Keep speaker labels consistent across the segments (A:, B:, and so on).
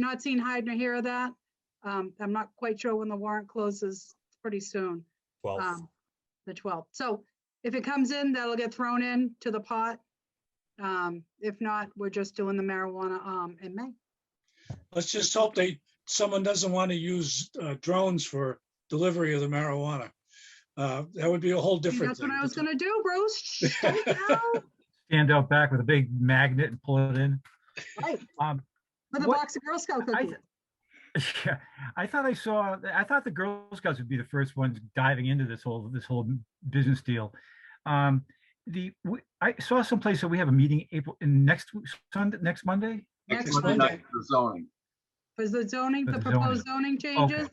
A: not seen hide nor hear of that. Um, I'm not quite sure when the warrant closes pretty soon,
B: 12th.
A: um, the 12th. So if it comes in, that'll get thrown in to the pot. Um, if not, we're just doing the marijuana, um, in May.
C: Let's just hope they, someone doesn't want to use uh, drones for delivery of the marijuana. Uh, That would be a whole
A: See,
C: different
A: That's
C: thing.
A: what I was gonna do, Bruce. Shh, don't tell.
D: stand out back with a big magnet and pull it in.
A: Right,
D: Um,
A: With a
D: What-
A: box of Girl Scout
D: I,
A: cookies.
D: yeah, I thought I saw, I thought the Girl Scouts would be the first ones diving into this whole, this whole business deal. Um, the, w- I saw someplace that we have a meeting April, in next, w- Sunday, next Monday?
A: Next
E: Monday
A: Monday.
E: night for zoning.
A: Was the zoning,
D: For
A: the
D: the zoning.
A: proposed zoning changes?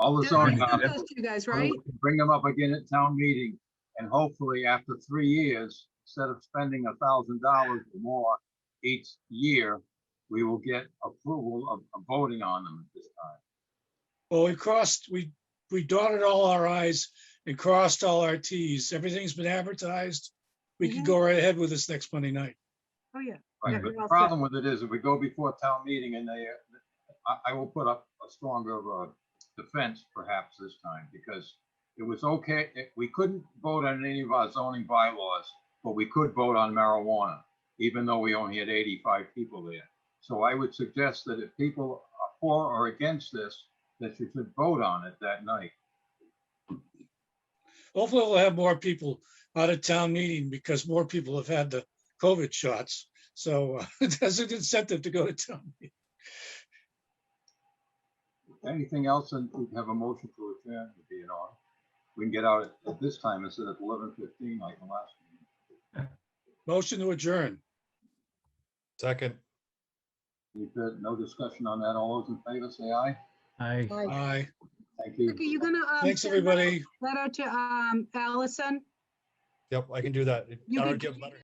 E: All the
A: Did I
E: zoning.
A: send
E: articles,
A: those to You guys,
E: so that
A: right?
E: we can Bring them up again at town meeting and hopefully after three years, instead of spending a thousand dollars or more each year, we will get approval of of voting on them at this time.
C: Well, we crossed, we, we dotted all our i's and crossed all our t's. Everything's been advertised. We can
A: Mhm.
C: go right ahead with this next Monday night.
A: Oh, yeah. Yeah,
E: Right, but
A: we're all
E: the
A: set.
E: problem with it is if we go before town meeting and they, uh, I, I will put up a stronger, uh, defense perhaps this time because it was okay, it- we couldn't vote on any of our zoning bylaws, but we could vote on marijuana, even though we only had eighty-five people there. So I would suggest that if people are for or against this, that you should vote on it that night.
C: Hopefully we'll have more people out of town meeting because more people have had the COVID shots. So uh, that's an incentive to go to town. meeting.
E: Anything else, and we can have a motion to adjourn would be in order. We can get out at- at this time instead of eleven fifteen like the last meeting.
C: Motion to adjourn.
B: Second.
E: You've got no discussion on that. All those in favor, say aye.
D: I,
A: Like,
C: Aye.
E: Thank
A: Okay, you
E: you.
A: gonna. um,
C: Thanks,
A: send that
C: everybody.
A: Letter to, um, Allison?
B: Yep, I can do that.
A: You
B: I
A: can
B: don't give
A: do
B: letter-